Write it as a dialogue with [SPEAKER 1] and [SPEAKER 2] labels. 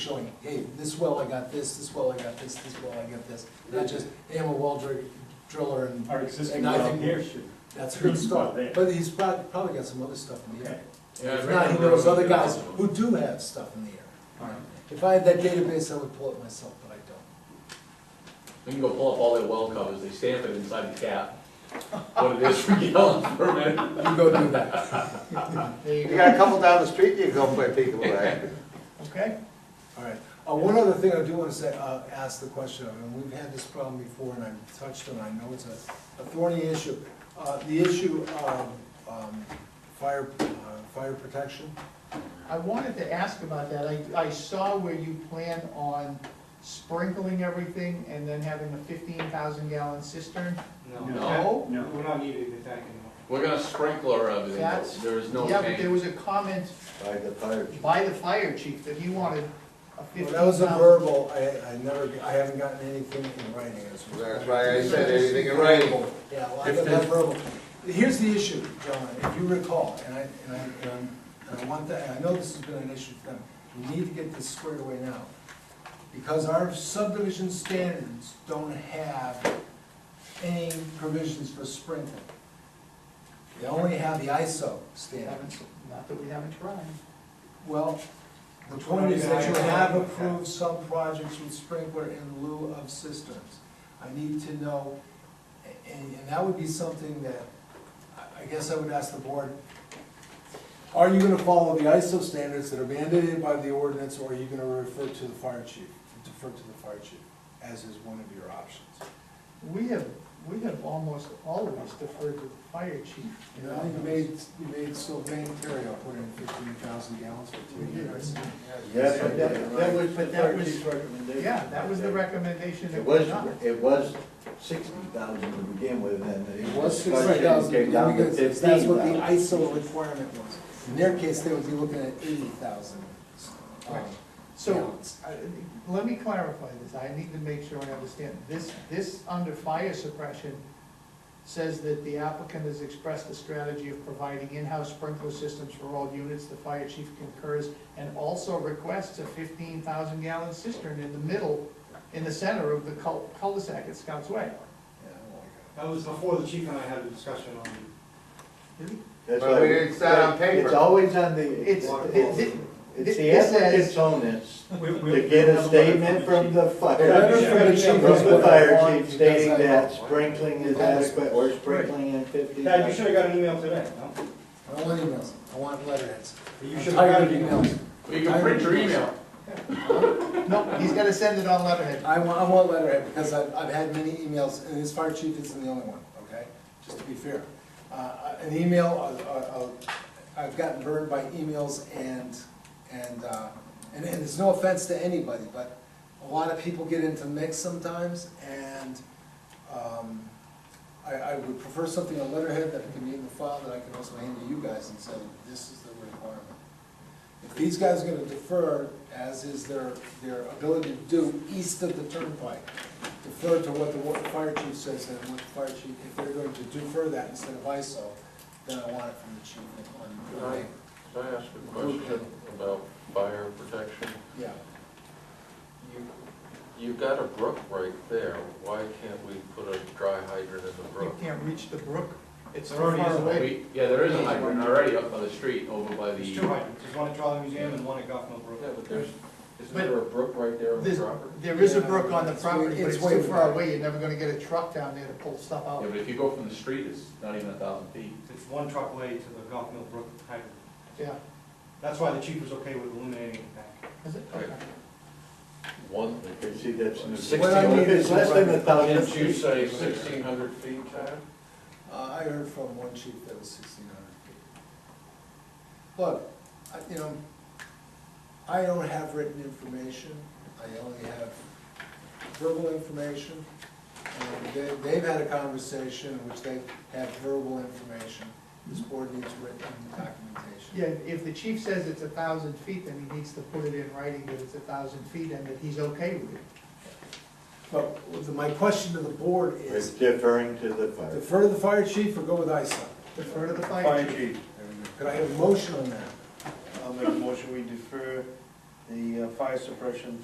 [SPEAKER 1] showing, hey, this well I got this, this well I got this, this well I got this. Not just, hey, I'm a well dr- driller and
[SPEAKER 2] Our existing
[SPEAKER 1] And I
[SPEAKER 2] well
[SPEAKER 1] think-
[SPEAKER 2] here should,
[SPEAKER 1] that's good
[SPEAKER 2] Not
[SPEAKER 1] stuff.
[SPEAKER 2] there.
[SPEAKER 1] But he's probably, probably got some other stuff in the area.
[SPEAKER 3] Yeah,
[SPEAKER 1] If
[SPEAKER 3] I
[SPEAKER 1] not, he
[SPEAKER 3] remember
[SPEAKER 1] knows
[SPEAKER 3] when
[SPEAKER 1] other
[SPEAKER 3] we
[SPEAKER 1] guys
[SPEAKER 3] did this
[SPEAKER 1] who
[SPEAKER 3] one.
[SPEAKER 1] do have stuff in the area.
[SPEAKER 2] Alright.
[SPEAKER 1] If I had that database, I would pull it myself, but I don't.
[SPEAKER 3] We can go pull up all their well covers, they stamp it inside the cap, what it is for gallons per minute.
[SPEAKER 1] You go do that.
[SPEAKER 4] You got a couple down the street, you can go play peekaboo, right?
[SPEAKER 2] okay?
[SPEAKER 1] All right. Uh, one other thing I do wanna say, uh, ask the question of, and we've had this problem before, and I've touched on, it, I know it's a, a thorny issue. Uh, the issue of, um, fire, uh, fire protection.
[SPEAKER 5] I wanted to ask about that. I, I saw where you plan on sprinkling everything and then having a fifteen thousand gallon cistern.
[SPEAKER 2] No.
[SPEAKER 5] No?
[SPEAKER 2] No.
[SPEAKER 6] We're not needed in the tank anymore.
[SPEAKER 3] We're gonna sprinkler everything, but
[SPEAKER 5] That's-
[SPEAKER 3] there is no
[SPEAKER 5] Yeah, but there
[SPEAKER 3] tank.
[SPEAKER 5] was a comment
[SPEAKER 4] By the fire chief.
[SPEAKER 5] by the fire chief that he wanted a fifteen
[SPEAKER 1] Well,
[SPEAKER 5] thousand.
[SPEAKER 1] that was a verbal, I, I never, I haven't gotten anything in writing as well.
[SPEAKER 4] That's why I said anything in writing.
[SPEAKER 1] Yeah, well, I got that verbal. Here's the issue, John, if you recall, and I, and I, and I'm- and I want that, and I know this has been an issue for them, we need to get this squared away now. Because our subdivision standards don't have any provisions for sprinkling. They only have the ISO standard.
[SPEAKER 5] Haven't- Not that we haven't tried.
[SPEAKER 1] Well, the point is that you have approved some projects with sprinkler in lieu of cisterns. I need to know, and, and that would be something that, I, I guess I would ask the board, are you gonna follow the ISO standards that are mandated by the ordinance, or are you gonna refer to the fire chief, defer to the fire chief, as is one of your options?
[SPEAKER 5] We have, we have almost always deferred to the fire chief.
[SPEAKER 1] You know, you made, you made Sylvain Terrio put in fifteen thousand gallons for two years.
[SPEAKER 7] Yes,
[SPEAKER 5] But that- that was- but that was- Yeah, that was the recommendation
[SPEAKER 7] It
[SPEAKER 5] that was
[SPEAKER 7] was,
[SPEAKER 5] done.
[SPEAKER 7] it was sixty thousand to begin with, and it
[SPEAKER 1] It
[SPEAKER 7] was
[SPEAKER 1] was six
[SPEAKER 7] discussion, it
[SPEAKER 1] thousand,
[SPEAKER 7] came down to fifteen
[SPEAKER 1] that's what the
[SPEAKER 7] thousand.
[SPEAKER 1] ISO requirement was. In their case, they would be looking at eighty thousand. um,
[SPEAKER 5] So, I- Uh, let me clarify this, I need to make sure I understand. This, this under fire suppression says that the applicant has expressed a strategy of providing in-house sprinkler systems for all units, the fire chief concurs, and also requests a fifteen thousand gallon cistern in the middle, in the center of the cul- cul-de-sac at Scouts Way.
[SPEAKER 6] That was before the chief and I had a discussion on
[SPEAKER 7] That's
[SPEAKER 4] But we
[SPEAKER 7] why-
[SPEAKER 4] didn't set on paper.
[SPEAKER 7] It's always on the,
[SPEAKER 5] It's,
[SPEAKER 7] it's
[SPEAKER 5] it- it-
[SPEAKER 7] the
[SPEAKER 5] it says-
[SPEAKER 7] applicant's onus
[SPEAKER 6] We-
[SPEAKER 7] to
[SPEAKER 6] we-
[SPEAKER 7] get
[SPEAKER 6] we
[SPEAKER 7] a
[SPEAKER 6] have
[SPEAKER 7] statement
[SPEAKER 6] letter
[SPEAKER 7] from the fire.
[SPEAKER 1] letter from the chief
[SPEAKER 7] From
[SPEAKER 1] is
[SPEAKER 7] the
[SPEAKER 1] what I
[SPEAKER 7] fire
[SPEAKER 1] want
[SPEAKER 7] chief
[SPEAKER 1] because
[SPEAKER 7] stating
[SPEAKER 1] I-
[SPEAKER 7] that sprinkling is adequate, or sprinkling in fifty.
[SPEAKER 6] chief. Dad, you should've got an email today, no?
[SPEAKER 1] I don't want emails, I want letterheads.
[SPEAKER 6] You
[SPEAKER 1] I'm
[SPEAKER 6] should've
[SPEAKER 1] tired
[SPEAKER 6] got
[SPEAKER 1] of
[SPEAKER 6] an email.
[SPEAKER 1] emails.
[SPEAKER 3] You can print your email.
[SPEAKER 5] no, he's gotta send it on letterhead.
[SPEAKER 1] I want, I want letterhead, because I've, I've had many emails, and this fire chief isn't the only one, okay? Just to be fair. Uh, an email, uh, uh, uh, I've gotten burned by emails and, and, uh, and, and it's no offense to anybody, but a lot of people get into mix sometimes, and, um, I, I would prefer something on letterhead that can be in the file that I can also hand to you guys and say, this is the requirement. If these guys are gonna defer, as is their, their ability to do east of the turnpike, defer to what the wa- fire chief says and what the fire chief, if they're going to defer that instead of ISO, then I want it from the chief on, on,
[SPEAKER 3] Right. Can I ask a question about fire protection?
[SPEAKER 1] yeah.
[SPEAKER 3] You, you've got a brook right there, why can't we put a dry hydrant in the
[SPEAKER 5] You
[SPEAKER 3] brook?
[SPEAKER 5] can't reach the brook, it's too
[SPEAKER 6] There already
[SPEAKER 5] far
[SPEAKER 6] is a
[SPEAKER 5] away.
[SPEAKER 3] We, yeah, there is a hydrant already up by the street over by the.
[SPEAKER 6] There's two hydrants, there's one at Charlie Museum and one at Goff Mill
[SPEAKER 3] Yeah,
[SPEAKER 6] Brook.
[SPEAKER 3] but there's, isn't
[SPEAKER 5] But-
[SPEAKER 3] there a brook right there on the
[SPEAKER 5] There's-
[SPEAKER 3] property?
[SPEAKER 5] There is a brook on the property, but it's too far
[SPEAKER 1] It's way-
[SPEAKER 5] away, you're never gonna get a truck down there to pull stuff
[SPEAKER 3] Yeah,
[SPEAKER 5] out.
[SPEAKER 3] but if you go from the street, it's not even a thousand feet.
[SPEAKER 6] It's one truck away to the Goff Mill Brook hydrant.
[SPEAKER 5] Yeah,
[SPEAKER 6] That's why the chief was okay with illuminating the tank.
[SPEAKER 5] is it?
[SPEAKER 3] Right.
[SPEAKER 5] Okay.
[SPEAKER 3] One.
[SPEAKER 7] You see, that's. an-
[SPEAKER 3] Sixty-
[SPEAKER 7] Well, I mean, It's less than a thousand.
[SPEAKER 3] Didn't you say sixteen hundred feet, Chad?
[SPEAKER 1] Uh, I heard from one chief that was sixteen hundred feet. Look, I, you know, I don't have written information, I only have verbal information. And they, they've had a conversation in which they have verbal information, this board needs written documentation.
[SPEAKER 5] Yeah, if the chief says it's a thousand feet, then he needs to put it in writing that it's a thousand feet and that he's okay with it.
[SPEAKER 1] But with the- my question to the board
[SPEAKER 7] It's
[SPEAKER 1] is,
[SPEAKER 7] deferring to the fire.
[SPEAKER 1] defer to the fire chief or go with ISO?
[SPEAKER 5] Defer to the fire chief.
[SPEAKER 7] chief.
[SPEAKER 1] Could I have a motion on that?
[SPEAKER 7] I'll make a motion, we defer the uh, fire suppression